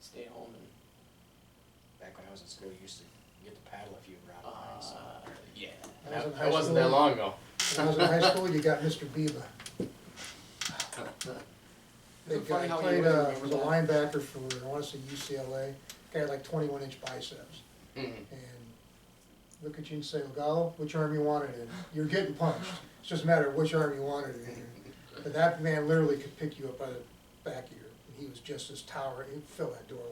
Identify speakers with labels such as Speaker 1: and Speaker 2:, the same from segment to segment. Speaker 1: stay home and,
Speaker 2: Back when I was in school, you used to get to paddle if you were out
Speaker 1: uh,
Speaker 2: of line, so.
Speaker 1: yeah.
Speaker 3: I
Speaker 1: Ah,
Speaker 3: was in
Speaker 1: That-
Speaker 3: high
Speaker 1: That wasn't that
Speaker 3: school.
Speaker 1: long ago.
Speaker 3: When I was in high school, you got Mr. Biba.
Speaker 1: Isn't
Speaker 3: Big
Speaker 1: it funny
Speaker 3: guy,
Speaker 1: how you
Speaker 3: played,
Speaker 1: wouldn't
Speaker 3: uh,
Speaker 1: remember
Speaker 3: was a
Speaker 1: that?
Speaker 3: linebacker for, I wanna say UCLA, guy had like twenty-one inch biceps.
Speaker 1: Mhm.
Speaker 3: And look at you and say, "Gal, which arm you wanted in? You're getting punched. It's just a matter of which arm you wanted it in. But that man literally could pick you up by the back of your, and he was just as tower, he'd fill that doorway.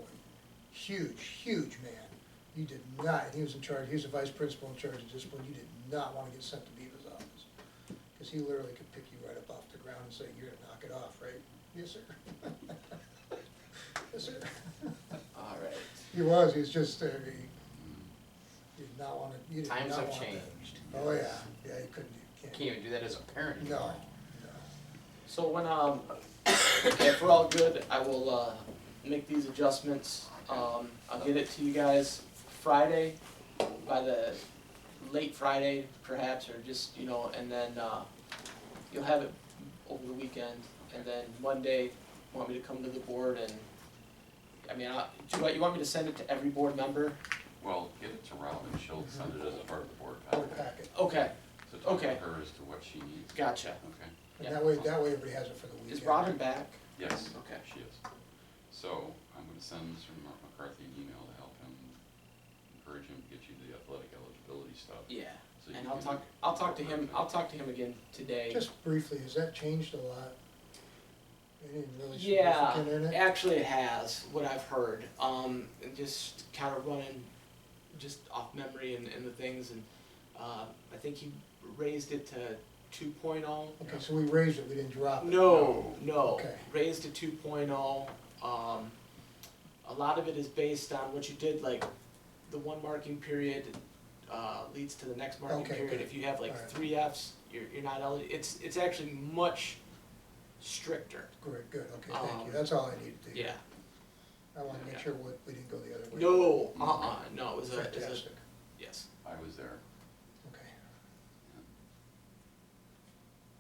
Speaker 3: Huge, huge man. You did not, he was in charge, he was the vice principal in charge of discipline, you did not wanna get sent to Beavis office. Cause he literally could pick you right up off the ground and say, you're gonna knock it off, right? Yes, sir. Yes, sir.
Speaker 1: All right.
Speaker 3: He was, he was just, uh, he did not wanna, he did not want
Speaker 1: Times
Speaker 3: that.
Speaker 1: have changed.
Speaker 3: Oh, yeah, yeah, you couldn't, you
Speaker 1: Can't
Speaker 3: can't.
Speaker 1: even do that as a parent
Speaker 3: No,
Speaker 1: anymore.
Speaker 3: no.
Speaker 1: So when, um, if we're all good, I will, uh, make these adjustments. Um, I'll get it to you guys Friday, by the late Friday perhaps, or just, you know, and then, uh, you'll have it over the weekend, and then Monday, want me to come to the board and, I mean, I, do you want, you want me to send it to every board member?
Speaker 4: Well, get it to Robin, she'll send it as a part of the board
Speaker 3: Board
Speaker 4: packet.
Speaker 3: packet,
Speaker 1: Okay,
Speaker 4: So talk to
Speaker 1: Okay.
Speaker 4: her as to what she needs,
Speaker 1: gotcha.
Speaker 4: okay?
Speaker 3: and that way, that way everybody has it for the weekend.
Speaker 1: Is Robin back?
Speaker 4: Yes,
Speaker 1: Okay.
Speaker 4: she is. So I'm gonna send Mr. Mark McCarthy an email to help him, encourage him to get you the athletic eligibility stuff.
Speaker 1: Yeah.
Speaker 4: so you
Speaker 1: And I'll
Speaker 4: can-
Speaker 1: talk, I'll talk to him, I'll talk to him again today.
Speaker 3: Just briefly, has that changed a lot? Anything really
Speaker 1: Yeah,
Speaker 3: significant in it?
Speaker 1: Actually, it has, what I've heard. Um, and just kind of running just off memory and, and the things. And uh, I think he raised it to oh, 2.0.
Speaker 3: Okay, so we raised it, we didn't drop it.
Speaker 1: No, no.
Speaker 3: Okay.
Speaker 1: Raised to 2.0. Um, a lot of it is based on what you did, like the one marking period uh, leads to the next marking
Speaker 3: Okay,
Speaker 1: period.
Speaker 3: good.
Speaker 1: If you have like
Speaker 3: Alright.
Speaker 1: three Fs, you're, you're not eligible. It's, it's actually much stricter.
Speaker 3: Great, good, okay, thank
Speaker 1: Um,
Speaker 3: you, that's all I needed to hear.
Speaker 1: Yeah.
Speaker 3: I wanna make
Speaker 1: yeah.
Speaker 3: sure we, we didn't go the other way.
Speaker 1: No, uh, uh no, it was a, it was
Speaker 3: Fantastic,
Speaker 1: a, yes.
Speaker 4: I was there,
Speaker 3: okay.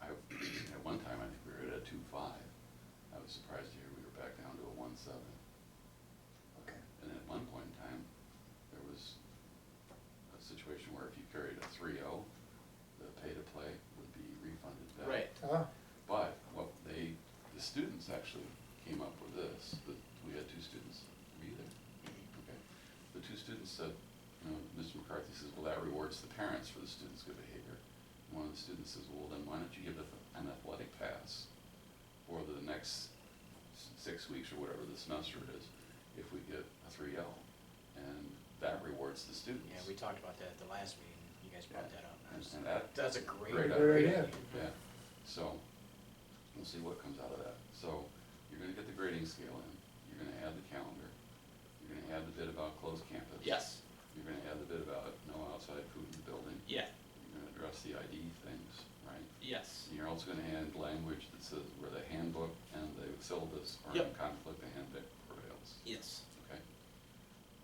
Speaker 4: I, at one time, I think we were at a two five. I was surprised to hear we were back down to a one seven.
Speaker 3: Okay.
Speaker 4: And at one point in time, there was a situation where if you carried a three oh, the pay to play would be refunded
Speaker 2: Uh,
Speaker 4: back.
Speaker 1: Right.
Speaker 3: Ah,
Speaker 4: But what they, the students actually came up with this, that we had two students, were you there? Okay. The two students said, you know, Mr. McCarthy says, well, that rewards the parents for the students' good behavior. And One of the students says, well, then why don't you give it an athletic pass for the next s- six weeks or whatever the semester is, if we get a three L? And that rewards the students.
Speaker 2: Yeah, we talked about that at the last meeting, you guys brought that up.
Speaker 4: And- And that
Speaker 2: That's a great.
Speaker 4: Great
Speaker 3: Great idea.
Speaker 4: yeah, so, we'll see what comes out of that. So, you're gonna get the grading scale in, you're gonna add the calendar, you're gonna add the bit about closed campus.
Speaker 1: Yes.
Speaker 4: You're gonna add the bit about no outside food in the building,
Speaker 1: Yeah.
Speaker 4: you're gonna address the ID things, right?
Speaker 1: Yes.
Speaker 4: And you're also gonna add language that says where the handbook and the syllabus are in
Speaker 1: Yep.
Speaker 4: conflict, the handbook prevails,
Speaker 1: Yes.
Speaker 4: okay?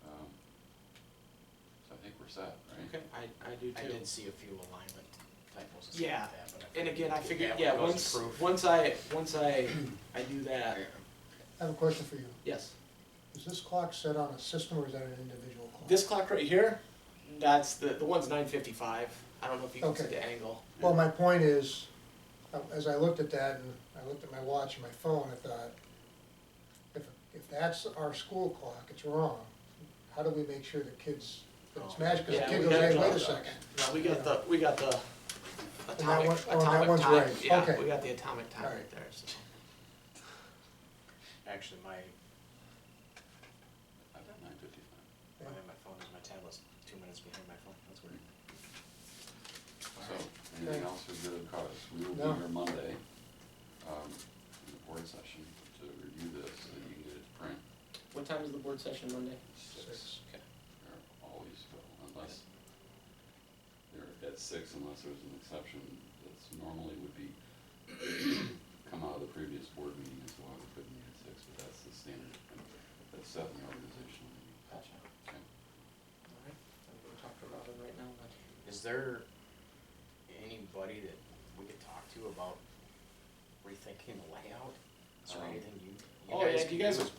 Speaker 4: Um, So I think we're set, right?
Speaker 1: Okay. I, I do
Speaker 2: I
Speaker 1: too.
Speaker 2: did see a few alignment typos and stuff
Speaker 1: Yeah,
Speaker 2: like that, but I.
Speaker 1: And
Speaker 2: figured
Speaker 1: again, I
Speaker 2: we'd do
Speaker 1: figured,
Speaker 2: that when
Speaker 1: yeah,
Speaker 2: it goes to
Speaker 1: once,
Speaker 2: proof.
Speaker 1: once I, once I, I do that,
Speaker 3: I have a question for you.
Speaker 1: yes.
Speaker 3: Is this clock set on a system or is that an individual clock?
Speaker 1: This clock right here, that's the, the one's nine fifty-five. I don't know if you can see
Speaker 3: Okay.
Speaker 1: the angle.
Speaker 3: Well, my point is, uh, as I looked at that and I looked at my watch and my phone, I thought, if, if that's our school clock, it's wrong. How do we make sure the kids, that it's
Speaker 2: Oh.
Speaker 3: magic, because the
Speaker 1: Yeah,
Speaker 3: kid
Speaker 1: we
Speaker 3: goes,
Speaker 1: gotta
Speaker 3: hey, wait a
Speaker 1: draw
Speaker 3: second.
Speaker 1: No, we got the, we got the atomic,
Speaker 3: one- oh, that
Speaker 1: atomic
Speaker 3: one's
Speaker 1: time.
Speaker 3: right.
Speaker 1: Yeah,
Speaker 3: Okay.
Speaker 1: we got the atomic time
Speaker 3: Alright.
Speaker 1: right there, so.
Speaker 2: Actually, my,
Speaker 4: I've got nine fifty-five.
Speaker 2: my, my phone is, my tablet's two minutes behind my phone, that's weird.
Speaker 4: So, anything else for good cause? We will
Speaker 3: No.
Speaker 4: be here Monday, um, in the board session to review this, so that you can get it to print.
Speaker 1: What time is the board session Monday?
Speaker 3: Six.
Speaker 1: Okay.
Speaker 4: They're always full, unless, they're at six unless there's an exception that's normally would be, come out of the previous board meeting as well, we couldn't meet at six, but that's the standard, that's set in the organizational meeting.
Speaker 1: Gotcha.
Speaker 4: Okay.
Speaker 1: Alright, I'm gonna talk to Robin right now, then.
Speaker 2: Is there anybody that we could talk to about rethinking the layout? Is there
Speaker 4: Um,
Speaker 2: anything you,
Speaker 1: Oh,
Speaker 2: you guys
Speaker 1: yeah,
Speaker 2: can
Speaker 1: you
Speaker 2: do
Speaker 1: guys-
Speaker 2: as